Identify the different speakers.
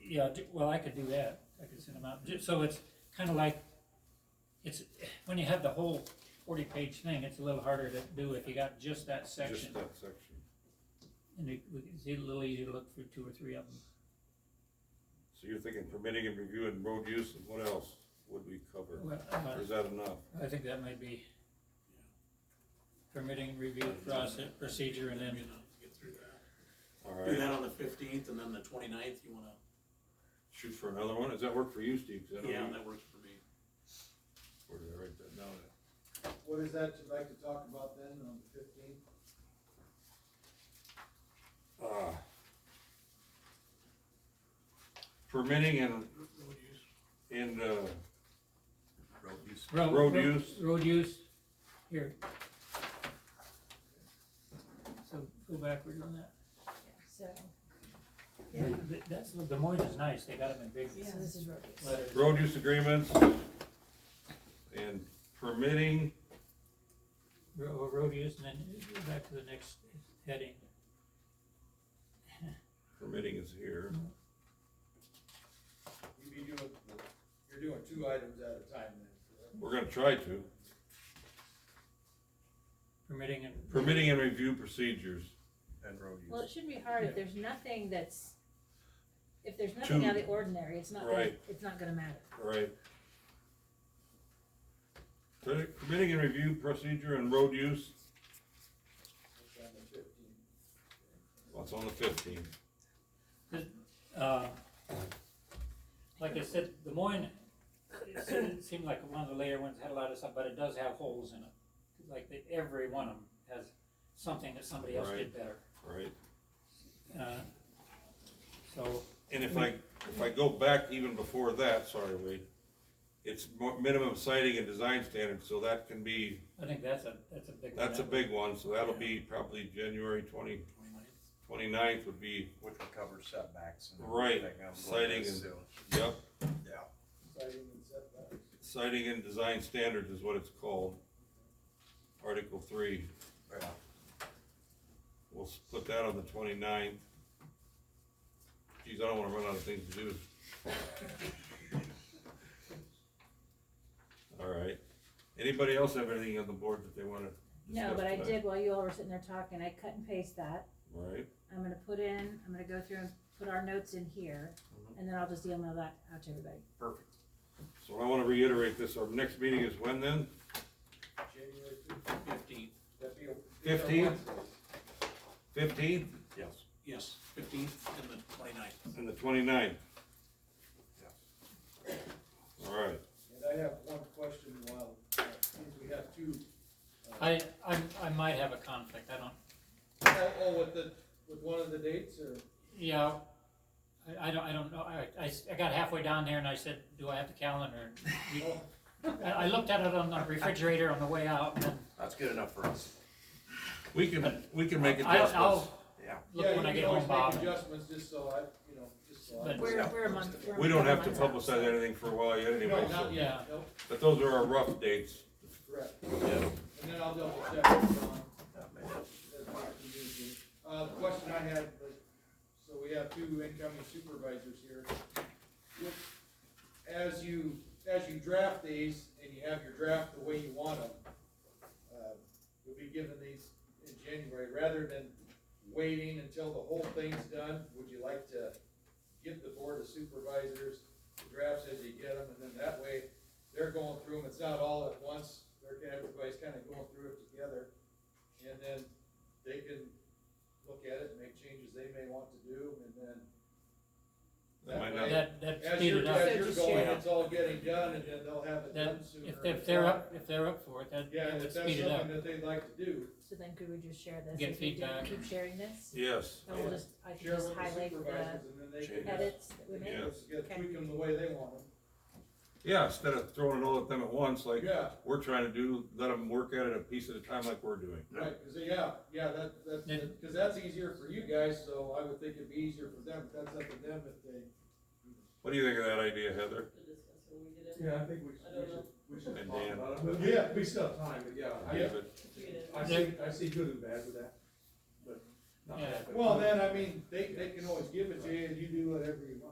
Speaker 1: yeah, do- well, I could do that, I could send them out, Ju- so it's kinda like, it's, when you have the whole forty-page thing, it's a little harder to do if you got just that section.
Speaker 2: Just that section.
Speaker 1: And it, it's a little easier to look through two or three of them.
Speaker 2: So you're thinking permitting and reviewing road use, and what else would we cover?
Speaker 1: Well,
Speaker 2: Or
Speaker 1: uh,
Speaker 2: is that enough?
Speaker 1: I think that might be permitting, review, process, procedure, and then,
Speaker 3: You know, get through that.
Speaker 2: All
Speaker 3: Do
Speaker 2: right,
Speaker 3: that on the fifteenth and then the 29th. you wanna,
Speaker 2: shoot for another one, does that work for you, Steve? 'Cause I don't
Speaker 3: yeah,
Speaker 2: know-
Speaker 3: that works for me.
Speaker 2: Where did I write that down at?
Speaker 4: What is that you'd like to talk about then on the fifteenth?
Speaker 2: Ah. Permitting and, and, uh,
Speaker 3: Road use.
Speaker 1: road.
Speaker 2: Road
Speaker 1: ro-
Speaker 2: use.
Speaker 1: Road use, here. So go backward on that.
Speaker 5: So, yeah,
Speaker 1: Th- That's, Des Moines is nice, they got them in big
Speaker 5: so this is road use.
Speaker 1: letters.
Speaker 2: road use agreements and permitting,
Speaker 1: Ro- oh, Road use, and then go back to the next heading.
Speaker 2: permitting is here.
Speaker 4: You'd be doing, you're doing two items at a time then, correct?
Speaker 2: We're gonna try to.
Speaker 1: Permitting and.
Speaker 2: Permitting and review procedures.
Speaker 6: and road use.
Speaker 7: Well, it shouldn't be hard if there's nothing that's, if there's nothing
Speaker 2: Two.
Speaker 7: out of the ordinary, it's not gonna,
Speaker 2: Right.
Speaker 7: it's not gonna matter.
Speaker 2: Right. Permitting and review procedure and road use,
Speaker 4: That's on the fifteenth.
Speaker 2: what's on the fifteenth?
Speaker 1: Uh, Like I said, Des Moines, it seemed- seemed like one of the later ones had a lot of stuff, but it does have holes in it. Like they- every one of them has something that somebody else did better.
Speaker 2: Right,
Speaker 1: Uh, So,
Speaker 2: and if I, if I go back even before that, sorry, Wade, it's mo- minimum sighting and design standards, so that can be,
Speaker 1: I think that's a, that's a big one.
Speaker 2: that's a big one, so that'll be probably January twenty,
Speaker 3: 29th.
Speaker 2: twenty-ninth would be,
Speaker 6: Which would cover setbacks and.
Speaker 2: Right,
Speaker 6: everything else like
Speaker 2: sighting
Speaker 6: this,
Speaker 2: and-
Speaker 6: so,
Speaker 2: yep,
Speaker 6: Yeah.
Speaker 4: Citing and setbacks.
Speaker 2: sighting and design standards is what it's called. Article three,
Speaker 6: yeah.
Speaker 2: we'll s- put that on the twenty-ninth. Geez, I don't wanna run out of things to do. Alright, anybody else have anything on the board that they wanna?
Speaker 7: No,
Speaker 2: discuss
Speaker 7: but I
Speaker 2: tonight?
Speaker 7: did, while you all were sitting there talking, I cut and paste that,
Speaker 2: Right,
Speaker 7: I'm gonna put in, I'm gonna go through and put our notes in here,
Speaker 2: Mm-hmm.
Speaker 7: and then I'll just email that out to everybody.
Speaker 6: Perfect.
Speaker 2: so I wanna reiterate this, our next meeting is when then?
Speaker 4: January fifteenth,
Speaker 3: Fifteenth,
Speaker 4: that'd be a.
Speaker 2: Fifteenth? Fifteenth
Speaker 6: Yes.
Speaker 3: yes, fifteenth and the 29th.
Speaker 2: and the twenty-ninth?
Speaker 6: Yes.
Speaker 2: Alright,
Speaker 4: And I have one question while, uh, since we have two. uh,
Speaker 1: I, I, I might have a conflict, I don't,
Speaker 4: Oh, oh, with the, with one of the dates or?
Speaker 1: yeah, I, I don't, I don't know, I, I s- I got halfway down there and I said, do I have the calendar? You-
Speaker 4: Oh,
Speaker 1: I, I looked at it on the refrigerator on the way out, and then
Speaker 6: That's good enough for us.
Speaker 2: we can, we can make
Speaker 1: I,
Speaker 2: adjustments.
Speaker 1: I'll
Speaker 6: Yeah.
Speaker 4: Yeah,
Speaker 1: look
Speaker 4: you
Speaker 1: when I
Speaker 4: can
Speaker 1: get
Speaker 4: always
Speaker 1: home, Bob.
Speaker 4: Make
Speaker 1: and-
Speaker 4: adjustments just so I, you know, just so I.
Speaker 1: But-
Speaker 7: We're, we're a month, we're a
Speaker 2: We don't have
Speaker 7: month
Speaker 2: to
Speaker 7: out.
Speaker 2: publicize anything for a while yet anyway,
Speaker 4: No,
Speaker 2: so,
Speaker 4: not yet, nope,
Speaker 2: but those are our rough dates.
Speaker 4: correct.
Speaker 2: Yeah.
Speaker 4: And then I'll double check with um, Don.
Speaker 6: that may help.
Speaker 4: Uh, the question I had, was, so we have two incoming supervisors here. As you, as you draft these, and you have your draft the way you want them, uh, you'll be given these in January, rather than waiting until the whole thing's done, would you like to give the board of supervisors the drafts as you get them, and then that way, they're going through them, it's not all at once, they're, everybody's kinda going through it together. And then they can look at it and make changes they may want to do, and then
Speaker 2: That might not-
Speaker 1: That, that
Speaker 4: as
Speaker 1: speed
Speaker 4: you're,
Speaker 1: it up.
Speaker 4: as you're
Speaker 7: So
Speaker 4: going,
Speaker 6: just-
Speaker 4: it's all getting done, and then they'll have it
Speaker 1: That,
Speaker 4: done sooner.
Speaker 1: if, if they're up, if they're up for it, that,
Speaker 4: Yeah,
Speaker 1: that
Speaker 4: and
Speaker 1: would
Speaker 4: if that's
Speaker 1: speed it up.
Speaker 4: something that they'd like to do,
Speaker 7: So then could we just share this?
Speaker 1: Get
Speaker 7: If we do,
Speaker 1: feedback.
Speaker 7: Keep sharing this,
Speaker 2: Yes.
Speaker 7: and we'll just, I can
Speaker 4: share
Speaker 7: just
Speaker 4: with the
Speaker 7: highlight
Speaker 4: supervisors,
Speaker 7: the
Speaker 4: and then they can
Speaker 6: Changes.
Speaker 4: just,
Speaker 7: edits that we made.
Speaker 2: Yeah.
Speaker 4: just get-
Speaker 7: Okay.
Speaker 4: tweak them the way they want them,
Speaker 2: Yeah, instead of throwing it all at them at once, like
Speaker 4: yeah,
Speaker 2: we're trying to do, let them work at it a piece at a time like we're doing.
Speaker 4: right, cause they- yeah, yeah, that, that-
Speaker 1: Yeah.
Speaker 4: that, cause that's easier for you guys, so I would think it'd be easier for them, but that's up to them if they.
Speaker 2: What do you think of that idea, Heather?
Speaker 8: Yeah, I think we
Speaker 9: I
Speaker 8: should, we
Speaker 9: don't know.
Speaker 8: should, we should
Speaker 2: And
Speaker 8: talk
Speaker 2: Dan.
Speaker 8: about it, but yeah, we still have time, but yeah,
Speaker 2: David?
Speaker 8: I, I see, I see good and bad with that, but. not
Speaker 1: Yeah.
Speaker 8: bad, but-
Speaker 4: Well, then, I mean, they, they can always give it to you, and you do whatever you want.